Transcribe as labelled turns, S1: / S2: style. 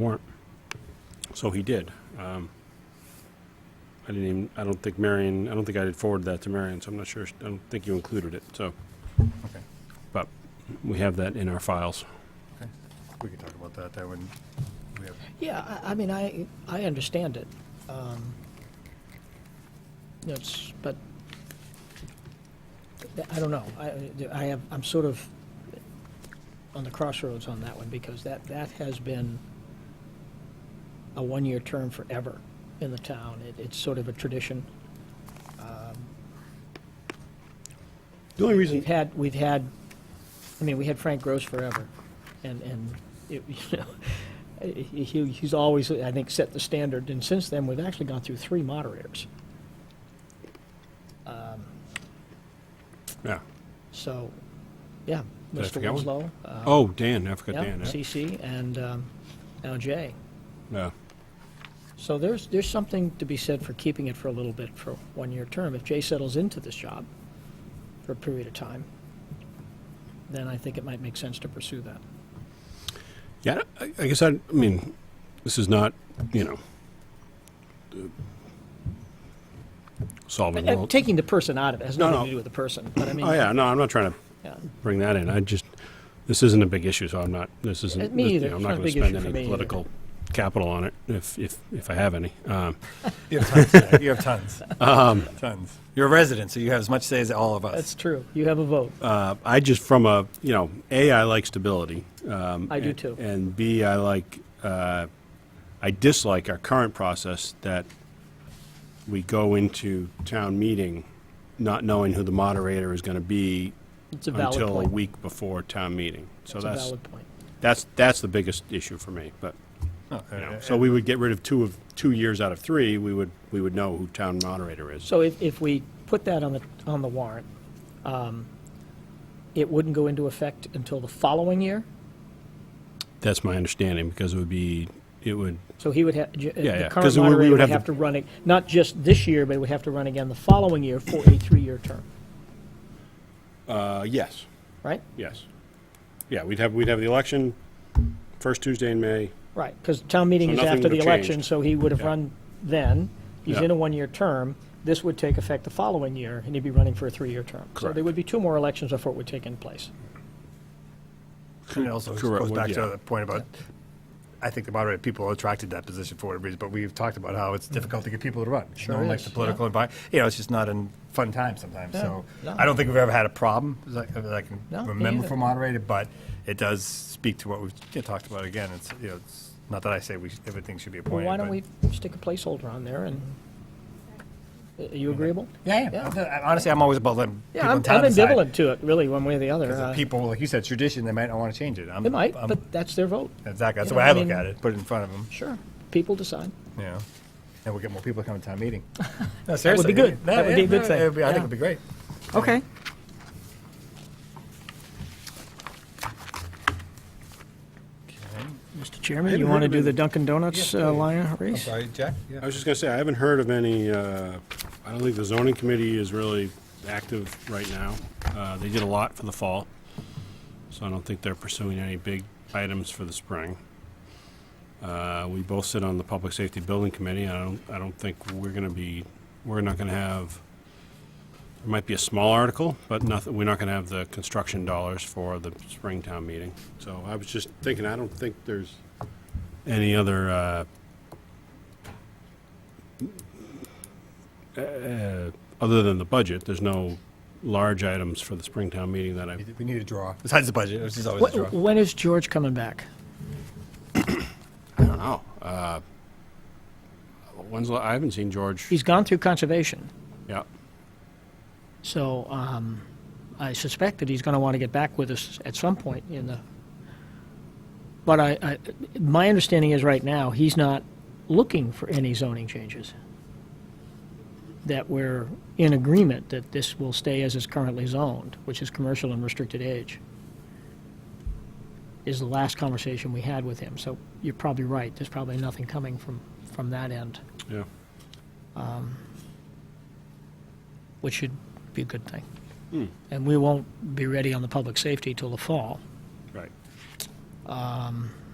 S1: warrant. So he did. Um, I didn't even, I don't think Marion, I don't think I did forward that to Marion, so I'm not sure, I don't think you included it, so.
S2: Okay.
S1: But we have that in our files.
S2: Okay, we can talk about that, that would, we have,
S3: Yeah, I, I mean, I, I understand it. Um, It's, but, th- I don't know, I, I have, I'm sort of on the crossroads on that one, because that, that has been a one-year term forever in the town, it, it's sort of a tradition. Um,
S4: The only reason,
S3: We've had, we've had, I mean, we had Frank Gross forever, and, and, it- you know, he, he- he's always, I think, set the standard, and since then, we've actually gone through three moderators.
S1: Yeah.
S3: So, yeah,
S1: Did I
S3: Mr.
S1: forget one?
S3: Winslow. uh,
S1: Oh, Dan, I forgot
S3: Yeah,
S1: Dan. yeah.
S3: CC, and um, now Jay.
S1: Yeah.
S3: So there's, there's something to be said for keeping it for a little bit for one-year term. If Jay settles into this job for a period of time, then I think it might make sense to pursue that.
S1: Yeah, I I guess I, I mean, this is not, you know, uh, solving
S3: Uh,
S1: world.
S3: Taking the person out of it has
S1: No,
S3: nothing
S1: no.
S3: to do with the person, but I mean.
S1: Oh, yeah, no, I'm not trying to
S3: yeah.
S1: bring that in. I just, this isn't a big issue, so I'm not, this
S3: Uh,
S1: isn't,
S3: me
S1: this- you
S3: either.
S1: know, I'm
S3: It's
S1: not
S3: not
S1: going
S3: a
S1: to
S3: big
S1: spend
S3: issue for me
S1: any
S3: either.
S1: political capital on it if, if, if I have any. Um,
S2: you have tons, you have tons, tons. You're a resident, so you have as much say as all of
S3: That's
S2: us.
S3: true. You have a vote.
S1: uh, I just, from a, you know, A, I like stability. Um,
S3: I do
S1: and-
S3: too.
S1: And B, I like, uh, I dislike our current process that we go into town meeting not knowing who the moderator is going to be
S3: It's a valid
S1: until a
S3: point.
S1: week before town meeting. So
S3: It's a
S1: that's,
S3: valid point.
S1: that's, that's the biggest issue for me, but.
S2: No,
S1: You know,
S2: uh,
S1: So we would get rid of two of, two years out of three, we would, we would know who town moderator is.
S3: So if, if we put that on the, on the warrant, um, it wouldn't go into effect until the following year?
S1: That's my understanding, because it would be, it would,
S3: So he would have, the
S1: yeah,
S3: current
S1: 'cause we- we would
S3: moderator would
S1: have
S3: have
S1: to-
S3: to run it, not just this year, but would have to run again the following year for a three-year term,
S1: uh, yes,
S3: right?
S1: yes. Yeah, we'd have, we'd have the election first Tuesday in May.
S3: Right, because town meeting's
S1: So nothing
S3: after the
S1: would've changed.
S3: election, so he would have
S1: Yeah.
S3: run then. He's
S1: Yeah.
S3: in a one-year term. This would take effect the following year, and he'd be running for a three-year term. So there
S1: Correct.
S3: would be two more elections before it would take in place.
S2: And it also
S1: Correct,
S2: goes back to
S1: yeah.
S2: the point about, I think the moderate people are attracted to that position for whatever reason, but we've talked about how it's difficult to get people to run.
S3: Sure
S2: No one likes
S3: is,
S2: the political environment, you know, it's just not a fun time sometimes,
S3: Yeah,
S2: so.
S3: no.
S2: I don't think we've ever had a problem, as I as I can
S3: No, me
S2: remember
S3: either.
S2: for moderated, but it does speak to what we've you know, talked about again. It's, you know, it's, not that I say we, should- everything should be
S3: Well,
S2: appointed.
S3: why don't
S2: but-
S3: we stick a placeholder on there, and, are you agreeable?
S2: Yeah, yeah. I- I- Honestly, I'm always about letting
S3: Yeah,
S2: people
S3: I'm
S2: in town
S3: I'm
S2: decide.
S3: ambivalent to it, really, one way or the other.
S2: 'Cause if
S3: Uh,
S2: people, like you said, tradition, they might not want to change it. I'm-
S3: They might,
S2: I'm-
S3: but that's their vote.
S2: Exactly, that's the
S3: you know,
S2: way
S3: I
S2: I look
S3: mean-
S2: at it, put it in front of them,
S3: Sure, people decide.
S2: you know, and we'll get more people to come to town meeting. No,
S3: That would be
S2: seriously.
S3: good.
S2: No,
S3: That would
S2: yeah,
S3: be a good
S2: no,
S3: thing.
S2: it'd be- I think
S3: Yeah.
S2: it'd be great.
S5: Okay.
S3: Mr. Chairman,
S1: Haven't
S3: you
S1: heard
S3: want to
S1: of
S3: do the
S1: any-
S3: Dunkin' Donuts uh, line race?
S2: Sorry, Jack?
S1: I was just going to say, I haven't heard of any, uh, I don't think the zoning committee is really active right now. Uh, They did a lot for the fall, so I don't think they're pursuing any big items for the spring. Uh, We both sit on the Public Safety Building Committee, and I don't, I don't think we're going to be, we're not going to have, there might be a small article, but nothing, we're not going to have the construction dollars for the spring town meeting. So I was just thinking, I don't think there's any other uh, uh, other than the budget, there's no large items for the Springtown meeting that I,
S2: We need a draw, besides the budget, which is always a
S3: Wh-
S2: draw.
S3: When is George coming back?
S1: I don't know. Uh, When's, the- I haven't seen George.
S3: He's gone through conservation,
S1: Yeah,
S3: so um, I suspect that he's going to want to get back with us at some point in the. But I, I, my understanding is right now he's not looking for any zoning changes. That we're in agreement that this will stay as is currently zoned, which is commercial and restricted age. Is the last conversation we had with him. So you're probably right. There's probably nothing coming from from that end.
S1: yeah.
S3: which should be a good thing. And we won't be ready on the public safety till the fall.
S1: Right.